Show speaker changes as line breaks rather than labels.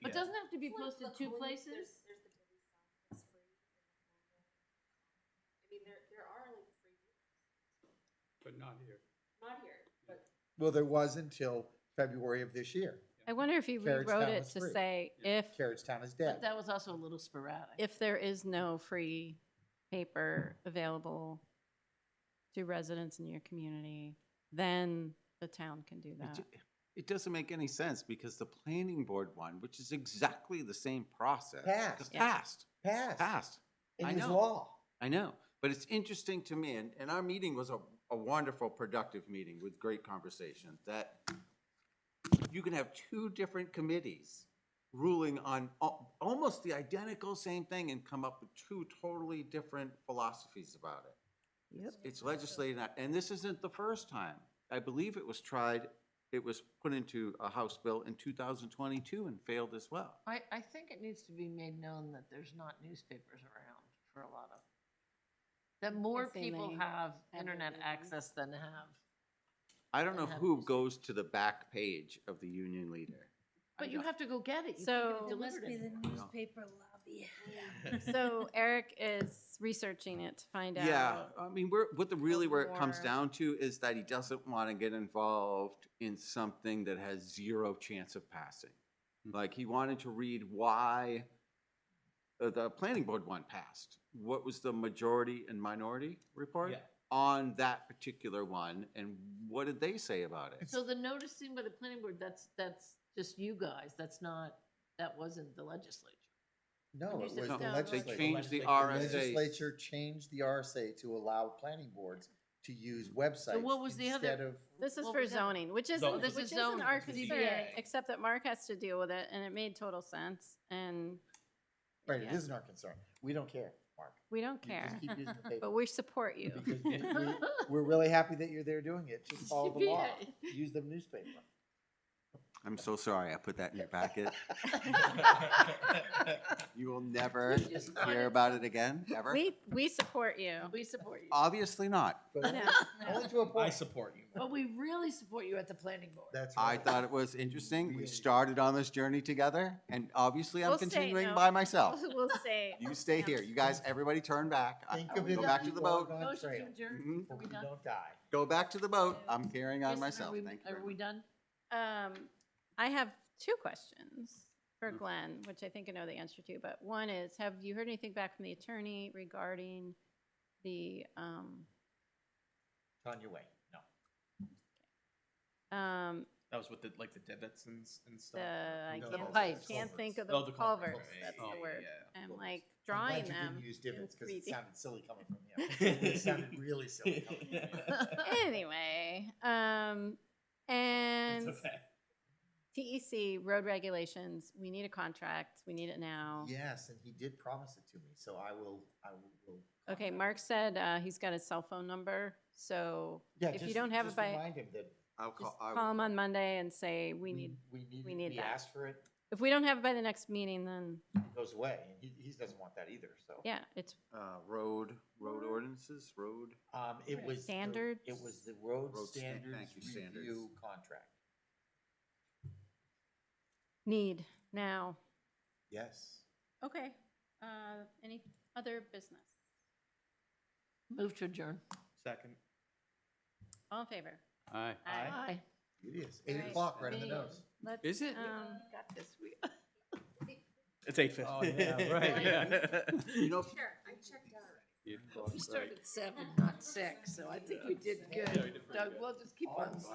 be posted two places?
There's, there's the Daily Sun, it's free. I mean, there, there are like free,
but not here.
not here, but
Well, there was until February of this year.
I wonder if he
Carrots
rewrote
Town
it
was
to
free.
say
Yeah.
if,
Carrottstown is
But
dead.
that was also a little sporadic.
if there is no free paper available to residents in your community, then the town can do
It
that.
ju- It doesn't make any sense because the planning board one, which is exactly the same process.
Passed.
just
Yeah.
Passed,
Passed.
passed.
It
I
is
know.
law.
I know, but it's interesting to me, and, and our meeting was a, a wonderful, productive meeting with great conversation, that you can have two different committees ruling on al- almost the identical same thing and come up with two totally different philosophies about it.
Yep.
It's legislated, not- and this isn't the first time. I believe it was tried, it was put into a House bill in two thousand twenty-two and failed as well.
I, I think it needs to be made known that there's not newspapers around for a lot of, that more
Yes, they
people
may
have
their
internet
own.
access than have.
I don't know
Have
who
this-
goes to the back page of the Union Leader. I
But you
don't-
have to go get it. You can't get
So-
it
It
delivered anymore.
newspaper
lobby.
So Eric is researching it to find out.
Yeah, I mean, we're, what the, really where it comes
more-
down to is that he doesn't want to get involved in something that has zero chance of passing. Like, he wanted to read why uh, the planning board one passed. What was the majority and minority report? On that particular one, and what did they say about it?
So the noticing by the planning board, that's, that's just you guys. That's not, that wasn't the legislature.
No,
you
it
said
was the
no, no,
They
legislature.
legislature.
changed the
The
The
RSA.
legislature changed the RSA to allow planning boards to use websites
what was the other-
instead of,
This is
What
for
was that?
zoning, which isn't,
Zoning.
which
This is
isn't
zoning.
our
It's a
concern,
ZBA.
except that Mark has to deal with it, and it made total sense, and
right, it
Yeah.
isn't our concern. We don't care, Mark.
we don't
You just
care,
keep using the paper.
but we support you.
Because we- we- We're really happy that you're there doing it. Just follow the law. Use the newspaper.
I'm so sorry, I put that in your packet. You will never
just wanted
hear about it again, ever?
We, we support you.
We support you.
Obviously not.
But
No.
Only to a
I
point.
support you.
But we really support you at the planning board.
That's
I
right.
thought it was interesting. We
Really.
started on this journey together, and obviously I'm
We'll stay,
continuing
no.
by myself.
We'll say.
You stay here. You guys, everybody turn back. I-
Think
I
of
will
it
Go
as
back
we
to the
walk
boat.
on
Motion to
trail,
adjourn.
Mhm.
Are
but
we
we
done?
don't die.
Go back to the boat. I'm carrying on
Kristen,
myself.
are we-
Thank you.
Are
very
we
much.
done?
Um, I have two questions
Mm.
for Glenn, which I think I know the answer to, but one is, have you heard anything back from the attorney regarding the, um,
On your way. No,
um,
that was with the like the Debetsons and stuff.
the, I
No,
The
can't,
pipes.
can't think of
Oh,
the
the
culverts,
culverts.
that's
Yeah,
the
yeah,
word.
yeah,
I'm
culverts.
like
I'm glad
drawing
you didn't
them
Use
in
divots because it
3D.
sounded silly coming from him. It sounded really silly coming from him.
Anyway, um,
It's
and
okay.
TEC road regulations, we need a contract, we need it now.
Yes, and he did promise it to me, so I will, I will.
Okay,
contact-
Mark said, uh, he's got his cell phone number, so
Yeah,
if you
just-
don't have it
just
by-
Remind him that
I'll
just um,
call. I will-
call him on Monday and say, we need,
we need,
we need
we
that.
asked for it,
if we don't have it by the next meeting, then,
it goes away, and he, he doesn't want that either, so.
yeah, it's,
Uh, road, road ordinances, road.
Um, it was. the-
Standards?
It was the road
Road stan-
standards
thank you, standards.
review contract.
need now.
Yes.
Okay, uh, any other business?
Move to adjourn.
Second.
All in favor?
Aye.
Aye.
Aye.
It is, eight
Right.
o'clock, right in the
Yeah.
nose.
Let's,
Is it?
um,
Got this. We-
It's eight fifty.
Oh, yeah, right.
You know,
Sure, I checked out.
You'd-
We started at seven, not six, so I think we did good. Doug, we'll just keep on.